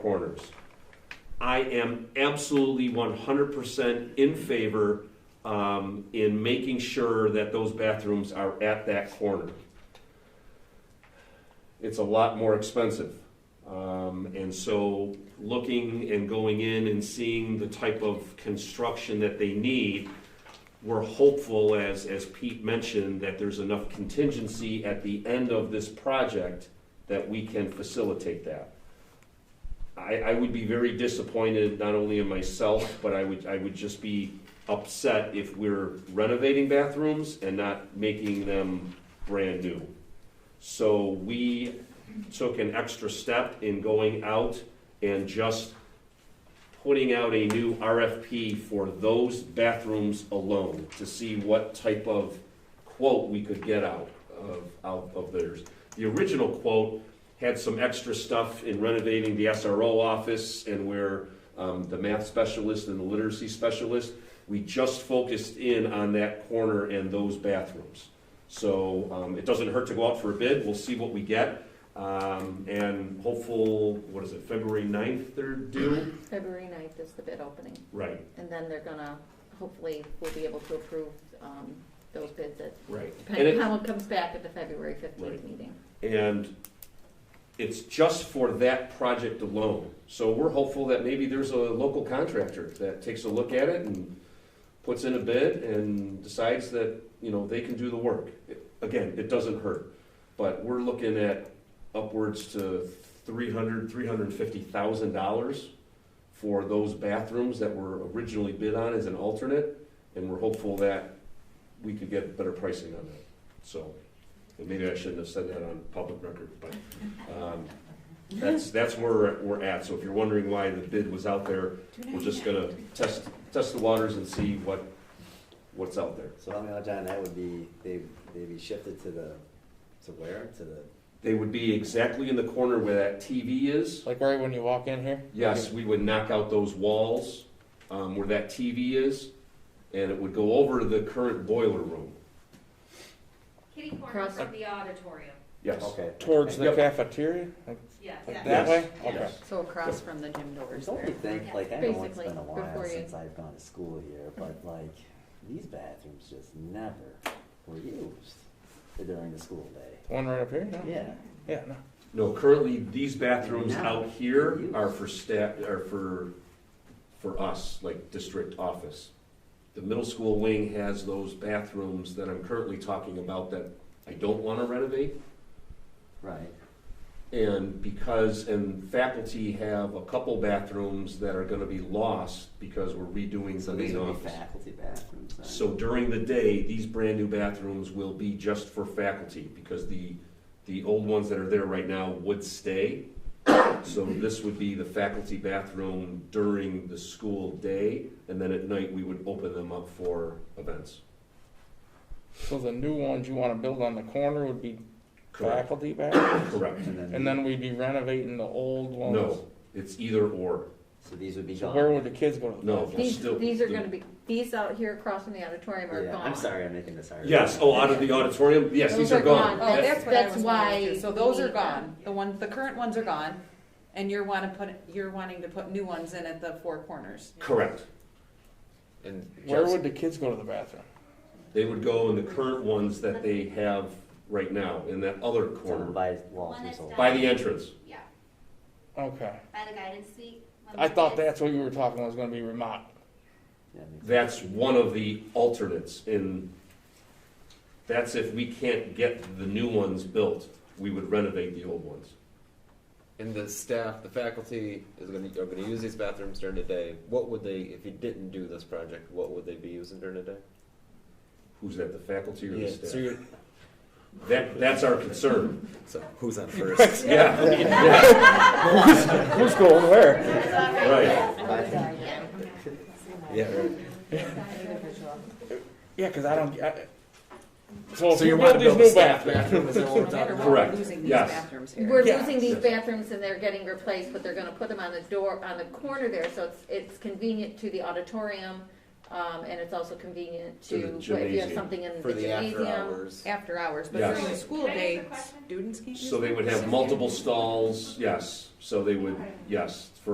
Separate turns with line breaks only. corners. I am absolutely one hundred percent in favor um, in making sure that those bathrooms are at that corner. It's a lot more expensive. Um, and so looking and going in and seeing the type of construction that they need, we're hopeful, as, as Pete mentioned, that there's enough contingency at the end of this project that we can facilitate that. I, I would be very disappointed, not only in myself, but I would, I would just be upset if we're renovating bathrooms and not making them brand new. So we took an extra step in going out and just putting out a new RFP for those bathrooms alone to see what type of quote we could get out of, out of theirs. The original quote had some extra stuff in renovating the SRO office and where um, the math specialist and the literacy specialist. We just focused in on that corner and those bathrooms. So um, it doesn't hurt to go out for a bid. We'll see what we get. Um, and hopeful, what is it, February 9th they're due?
February 9th is the bid opening,
Right.
and then they're gonna, hopefully, we'll be able to approve um, those bids at,
Right. And
depending on
it,
how it comes back at the February 15th
Right.
meeting.
and it's just for that project alone. So we're hopeful that maybe there's a local contractor that takes a look at it and puts in a bid and decides that, you know, they can do the work. Again, it doesn't hurt, but we're looking at upwards to three hundred, three hundred and fifty thousand dollars for those bathrooms that were originally bid on as an alternate, and we're hopeful that we could get better pricing on that, so. And maybe I shouldn't have said that on public record, but, um, that's, that's where we're- we're at. So if you're wondering why the bid was out there, we're just gonna test, test the waters and see what, what's out there.
So on the other hand, that would be, they, they'd be shifted to the, to where, to the,
They would be exactly in the corner where that TV is.
Like right when you walk in here?
Yes, we would knock out those walls, um, where that TV is, and it would go over the current boiler room.
Kitty corner
Cross-
from the auditorium,
Yes,
okay.
Towards the
Yep.
cafeteria? Like
yes.
like
Yeah.
that way?
Yes.
Okay.
Yes.
So across from the gym doors
Don't you
there.
think, like, I know it's been
Basically,
a
before
while
you-
since I've gone to school here, but like, these bathrooms just never were used during the school day.
The one right up here? No?
Yeah.
Yeah, no.
no, currently, these bathrooms
Now,
out here
for use.
are for staff, are for, for us, like district office. The middle school wing has those bathrooms that I'm currently talking about that I don't wanna renovate.
Right.
And because, and faculty have a couple bathrooms that are gonna be lost because we're redoing the
So these
main
would be
office.
faculty bathrooms then?
So during the day, these brand-new bathrooms will be just for faculty, because the, the old ones that are there right now would stay. So this would be the faculty bathroom during the school day, and then at night, we would open them up for events.
So the new ones you want to build on the corner would be
Correct.
faculty back?
Correct.
And then we'd be renovating the old ones?
No, it's either or.
So these would be
So
gone?
where would the kids go to the
No.
bathroom?
These,
Still-
these are gonna be, these out here across from the auditorium are
Yeah,
gone.
I'm sorry, I'm making this hard.
Yes, oh, out of the auditorium, yes, these
Those
are
are
gone.
gone.
Oh,
That's-
that's what I
that's
was
why
wondering too. So
we
those are
need them.
gone. The ones, the current ones are gone, and you're wanna put, you're wanting to put new ones in at the four corners.
Correct.
And
Where
just-
would the kids go to the bathroom?
They would go in the current ones that they have right now, in that other
Tell them
corner,
by Walter's
that's
old.
by the entrance.
Yeah,
Okay.
by the guidance suite. when
I
the
thought
kids-
that's what you were talking was going to be remodeled.
Yeah, makes-
That's one of the alternates in, that's if we can't get the new ones built, we would renovate the old ones.
and the staff, the faculty is going to are going to use these bathrooms during the day. What would they, if you didn't do this project, what would they be using during the day?
Who's that, the faculty or the
Yeah. So,
staff?
you're,
That, that's our concern,
so who's on first?
yeah.
Who's going where?
Right,
yeah. Right.
Yeah, because I don't, I, so if
So
you
you
build
want to
these
build a
new
staff
bathrooms,
bathroom? Is that what we're
No matter
talking
what,
about?
we're
Correct,
Losing these
yes.
bathrooms here.
We're
Yeah.
losing these bathrooms and they're getting replaced, but they're gonna put them on the door, on the corner there, so it's, it's convenient to the auditorium, Um, and it's also convenient
To the
to, but if you um, have
gymnasium.
something in
for
the
the after
gymnasium.
hours.
after hours, but
Yes.
during the school
Can I ask a
day,
question?
students can't use
So they would have
them?
multiple stalls, yes, so they would, yes, for